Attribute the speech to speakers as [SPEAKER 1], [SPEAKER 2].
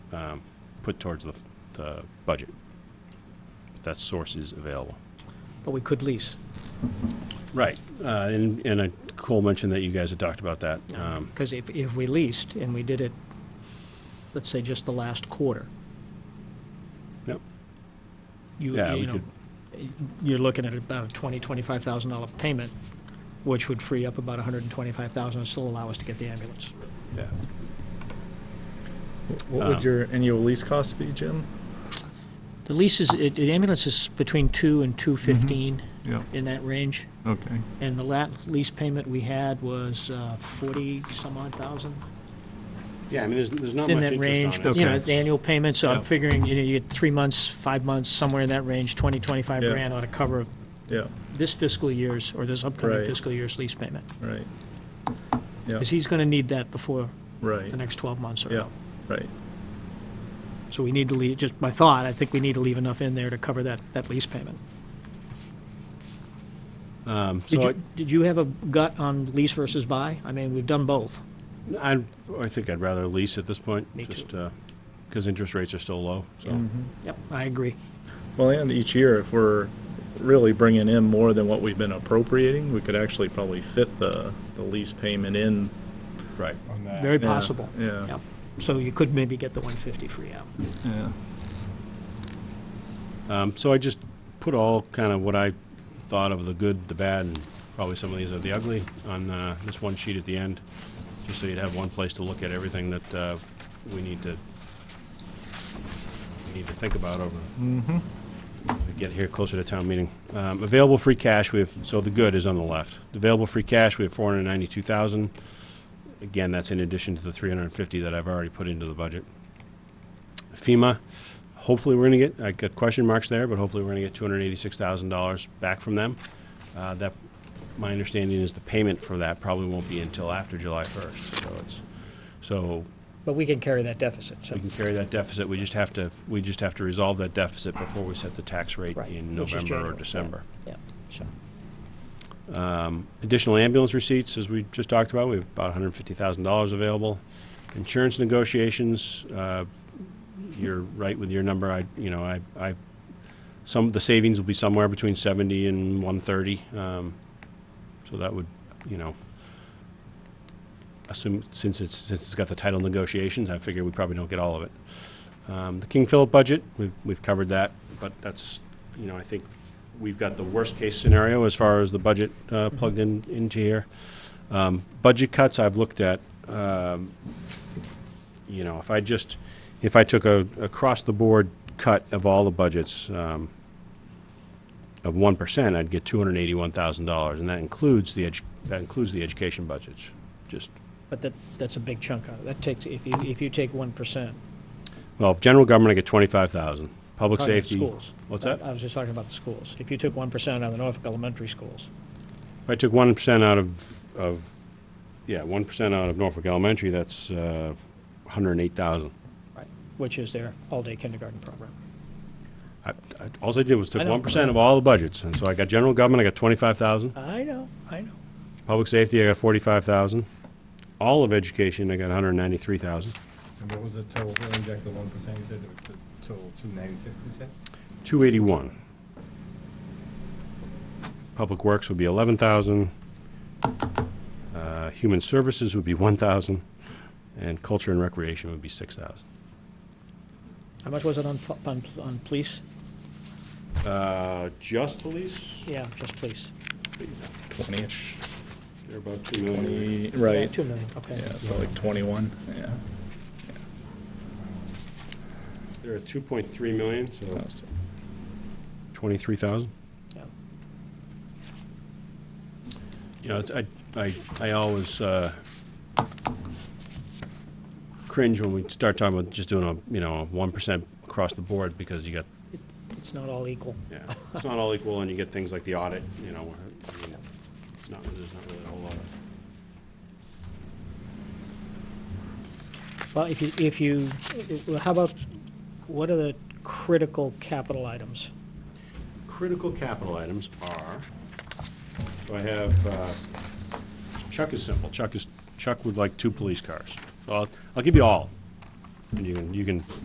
[SPEAKER 1] um, put towards the, the budget. That source is available.
[SPEAKER 2] But we could lease.
[SPEAKER 1] Right, uh, and, and uh, Cole mentioned that you guys had talked about that. Um,
[SPEAKER 2] Because if, if we leased and we did it, let's say just the last quarter,
[SPEAKER 1] Yep,
[SPEAKER 2] you,
[SPEAKER 1] Yeah,
[SPEAKER 2] you
[SPEAKER 1] we
[SPEAKER 2] know, you're looking at about a twenty, twenty-five thousand dollar payment, which would free up about a hundred and twenty-five thousand and still allow us to get the ambulance.
[SPEAKER 1] yeah.
[SPEAKER 3] What
[SPEAKER 1] Um,
[SPEAKER 3] would your annual lease cost be, Jim?
[SPEAKER 2] The lease is, it, the ambulance is between two and
[SPEAKER 1] Mm-hmm.
[SPEAKER 2] two fifteen,
[SPEAKER 3] Yeah,
[SPEAKER 2] in that range.
[SPEAKER 3] okay.
[SPEAKER 2] And the la lease payment we had was forty some odd thousand,
[SPEAKER 1] Yeah, I mean, there's, there's not
[SPEAKER 2] in
[SPEAKER 1] much
[SPEAKER 2] that range.
[SPEAKER 1] interest on
[SPEAKER 2] but,
[SPEAKER 1] it.
[SPEAKER 2] You know,
[SPEAKER 3] Okay.
[SPEAKER 2] the annual payments, so I'm
[SPEAKER 3] Yeah.
[SPEAKER 2] figuring, you know, you get three months, five months, somewhere in that range, 20, 25
[SPEAKER 3] Yeah.
[SPEAKER 2] grand ought to cover
[SPEAKER 3] Yeah,
[SPEAKER 2] this fiscal year's, or this upcoming
[SPEAKER 3] Right.
[SPEAKER 2] fiscal year's lease payment.
[SPEAKER 3] right. Yeah,
[SPEAKER 2] Because he's going to need that before
[SPEAKER 3] right,
[SPEAKER 2] the next 12 months or
[SPEAKER 3] yeah,
[SPEAKER 2] so.
[SPEAKER 3] right.
[SPEAKER 2] So we need to leave, just my thought, I think we need to leave enough in there to cover that, that lease payment.
[SPEAKER 1] Um, So
[SPEAKER 2] Did
[SPEAKER 1] I,
[SPEAKER 2] you, did you have a gut on lease versus buy? I mean, we've done both.
[SPEAKER 1] I, I think I'd rather lease at this point.
[SPEAKER 2] Me too.
[SPEAKER 1] just Because interest rates are still low, so.
[SPEAKER 3] Mhm.
[SPEAKER 2] Yep, I agree.
[SPEAKER 3] Well, and each year, if we're really bringing in more than what we've been appropriating, we could actually probably fit the, the lease payment in.
[SPEAKER 1] Right.
[SPEAKER 2] Very
[SPEAKER 3] Yeah,
[SPEAKER 2] possible.
[SPEAKER 3] yeah.
[SPEAKER 2] Yep. So you could maybe get the 150 free out.
[SPEAKER 3] Yeah.
[SPEAKER 1] Um, So I just put all kind of what I thought of the good, the bad, and probably some of these are the ugly on uh, this one sheet at the end, just so you'd have one place to look at everything that uh, we need to, we need to think about over, we get here closer to town meeting. Um, Available free cash, we have, so the good is on the left. Available free cash, we have 492,000. Again, that's in addition to the 350 that I've already put into the budget. FEMA, hopefully we're going to get, I got question marks there, but hopefully we're going to get $286,000 back from them. Uh, That, my understanding is the payment for that probably won't be until after July 1st, so it's, so
[SPEAKER 2] But we can carry that deficit, so.
[SPEAKER 1] we can carry that deficit, we just have to, we just have to resolve that deficit before we set the tax rate
[SPEAKER 2] Right,
[SPEAKER 1] in
[SPEAKER 2] which is
[SPEAKER 1] November
[SPEAKER 2] January,
[SPEAKER 1] or
[SPEAKER 2] yeah.
[SPEAKER 1] December.
[SPEAKER 2] Yeah, so.
[SPEAKER 1] Additional ambulance receipts, as we just talked about, we have about $150,000 available. Insurance negotiations, uh, you're right with your number, I, you know, I, I, some, the savings will be somewhere between 70 and 130. um, So that would, you know, assume, since it's, since it's got the title negotiations, I figure we probably don't get all of it. Um, The King Philip budget, we've, we've covered that, but that's, you know, I think we've got the worst-case scenario as far as the budget uh, plugged in, into here. Um, Budget cuts, I've looked at, um, you know, if I just, if I took a across-the-board cut of all the budgets um, of 1%, I'd get $281,000, and that includes the, edu- that includes the education budgets, just
[SPEAKER 2] But that, that's a big chunk out of it. That takes, if you, if you take one percent.
[SPEAKER 1] Well, if general government, I get twenty-five thousand. Public safety.
[SPEAKER 2] Oh, Schools.
[SPEAKER 1] What's
[SPEAKER 2] I-
[SPEAKER 1] that?
[SPEAKER 2] I was just talking about the schools. If you took one percent out of the Norfolk elementary schools,
[SPEAKER 1] If I took one percent out of, of, yeah, one percent out of Norfolk Elementary, that's, uh, hundred and eight thousand.
[SPEAKER 2] right, which is their all-day kindergarten program.
[SPEAKER 1] I, I, alls I did was
[SPEAKER 2] I
[SPEAKER 1] took
[SPEAKER 2] know.
[SPEAKER 1] one percent of all the budgets, and so I got general government, I got twenty-five thousand.
[SPEAKER 2] I know, I know.
[SPEAKER 1] Public safety, I got forty-five thousand. All of education, I got hundred and ninety-three thousand.
[SPEAKER 4] And what was the total, we'll inject the one percent, you said, the the total two ninety-six, you said?
[SPEAKER 1] Two eighty-one. Public works would be eleven thousand. Uh, human services would be one thousand, and culture and recreation would be six thousand.
[SPEAKER 2] How much was it on, fu- on, on police?
[SPEAKER 1] Uh, just police?
[SPEAKER 2] Yeah, just police.
[SPEAKER 3] Twenty-ish,
[SPEAKER 1] They're about two million.
[SPEAKER 3] twenty,
[SPEAKER 2] Yeah,
[SPEAKER 3] right,
[SPEAKER 2] Two million, okay.
[SPEAKER 3] yeah, so like twenty-one, yeah.
[SPEAKER 1] They're at two point three million, so.
[SPEAKER 3] That's-
[SPEAKER 1] Twenty-three thousand?
[SPEAKER 2] Yeah.
[SPEAKER 1] You know, it's, I, I, I always, uh, cringe when we start talking about just doing a, you know, one percent across the board, because you got
[SPEAKER 2] It- It's not all equal.
[SPEAKER 1] Yeah, it's not all equal, and you get things like the audit, you know, where, I mean, it's not, there's not really a whole lot of.
[SPEAKER 2] Well, if you, if you, well, how about, what are the critical capital items?
[SPEAKER 1] Critical capital items are, so I have, uh, Chuck is simple, Chuck is, Chuck would like two police cars. So I'll, I'll give you all, and you can, you can